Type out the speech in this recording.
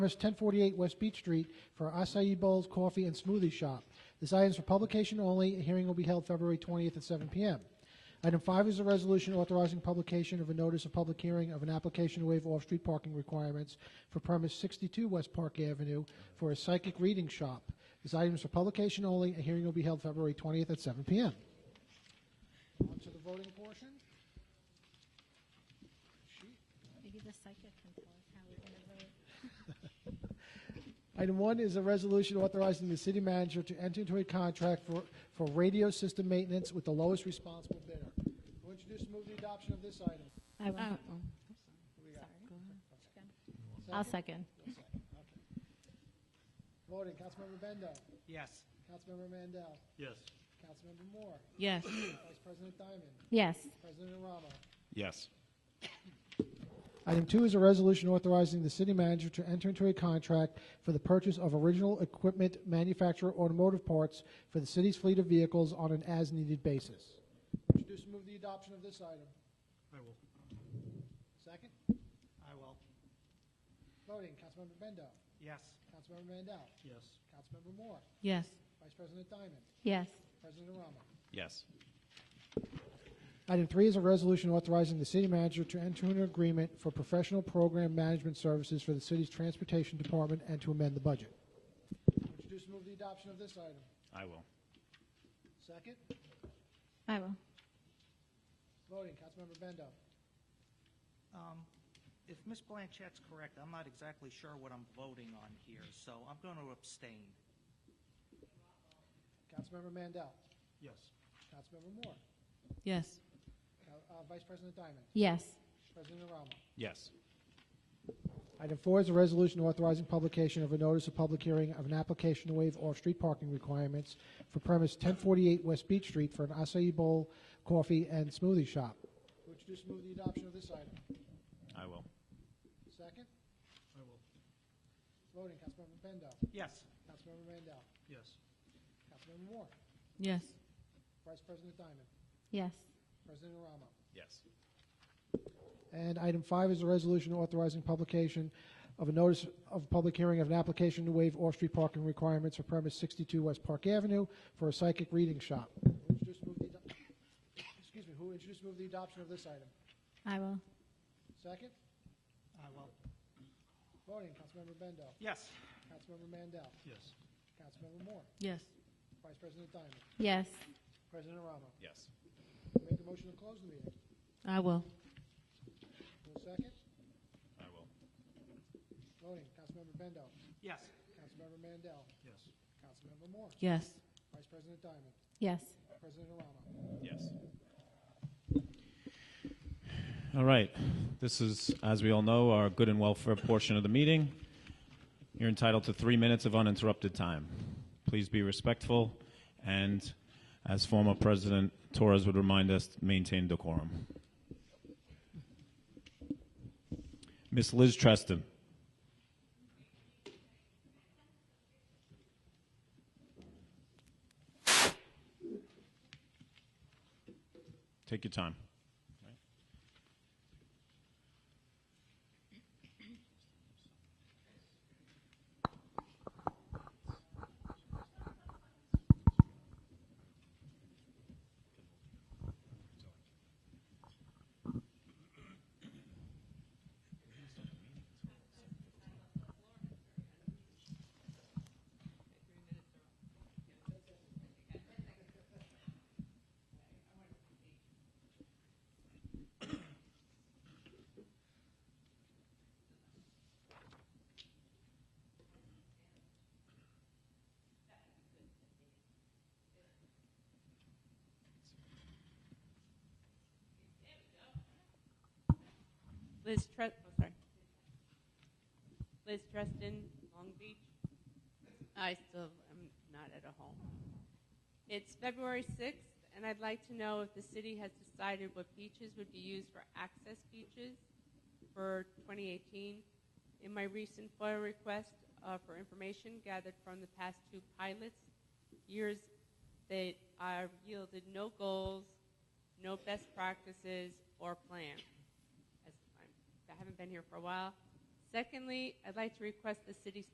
address 1048 West Beach Street for acai bowls, coffee, and smoothie shop. This item is for publication only. A hearing will be held February 20th at 7 p.m. Item five is a resolution authorizing publication of a notice of public hearing of an application to waive off-street parking requirements for premise 62 West Park Avenue for a psychic reading shop. This item is for publication only. A hearing will be held February 20th at 7 p.m. On to the voting portion. Maybe the psychic can tell us how we're going to vote. Item one is a resolution authorizing the city manager to enter into a contract for, for radio system maintenance with the lowest responsible bidder. Who introduced and move the adoption of this item? I will. I'll second. Voting, Councilmember Bendo, Yes. Councilmember Mandel, Yes. Councilmember Moore, Yes. Vice President Diamond, Yes. President Aramo. Yes. Item two is a resolution authorizing the city manager to enter into a contract for the purchase of original equipment manufacturer automotive parts for the city's fleet of vehicles on an as-needed basis. Introduce and move the adoption of this item. I will. Second. I will. Voting, Councilmember Bendo, Yes. Councilmember Mandel, Yes. Councilmember Moore, Yes. Vice President Diamond, Yes. President Aramo. Yes. Item three is a resolution authorizing the city manager to enter into an agreement for professional program management services for the city's transportation department and to amend the budget. Introduce and move the adoption of this item. I will. Second. I will. Voting, Councilmember Bendo. Um, If Ms. Blanchett's correct, I'm not exactly sure what I'm voting on here, so I'm going to abstain. Councilmember Mandel. Yes. Councilmember Moore. Yes. Cal- uh, Vice President Diamond. Yes. President Aramo. Yes. Item four is a resolution authorizing publication of a notice of public hearing of an application to waive off-street parking requirements for premise 1048 West Beach Street for an acai bowl, coffee, and smoothie shop. Would you just move the adoption of this item? I will. Second. I will. Voting, Councilmember Bendo. Yes. Councilmember Mandel. Yes. Councilmember Moore. Yes. Vice President Diamond. Yes. President Aramo. Yes. And item five is a resolution authorizing publication of a notice of public hearing of an application to waive off-street parking requirements for premise 62 West Park Avenue for a psychic reading shop. Who introduced move the ado- Excuse me, who introduced move the adoption of this item? I will. Second? I will. Voting, Councilmember Bendo, Yes. Councilmember Mandel, Yes. Councilmember Moore, Yes. Vice President Diamond, Yes. President Aramo. Yes. Make a motion to close the meeting. I will. Who second? I will. Voting, Councilmember Bendo, Yes. Councilmember Mandel, Yes. Councilmember Moore, Yes. Vice President Diamond, Yes. President Aramo. Yes. All right. This is, as we all know, our good and welfare portion of the meeting. You're entitled to three minutes of uninterrupted time. Please be respectful and, as former President Torres would remind us, maintain decorum. Miss Liz Treston. Take your time. Liz Tre- oh, sorry. Liz Treston, Long Beach. I still am not at a home. It's February 6th, and I'd like to know if the city has decided what beaches would be used for access beaches for 2018. In my recent FOIA request uh, for information gathered from the past two pilots, years that are yielded no goals, no best practices, or plan as I'm, I haven't been here for a while. Secondly, I'd like to request the city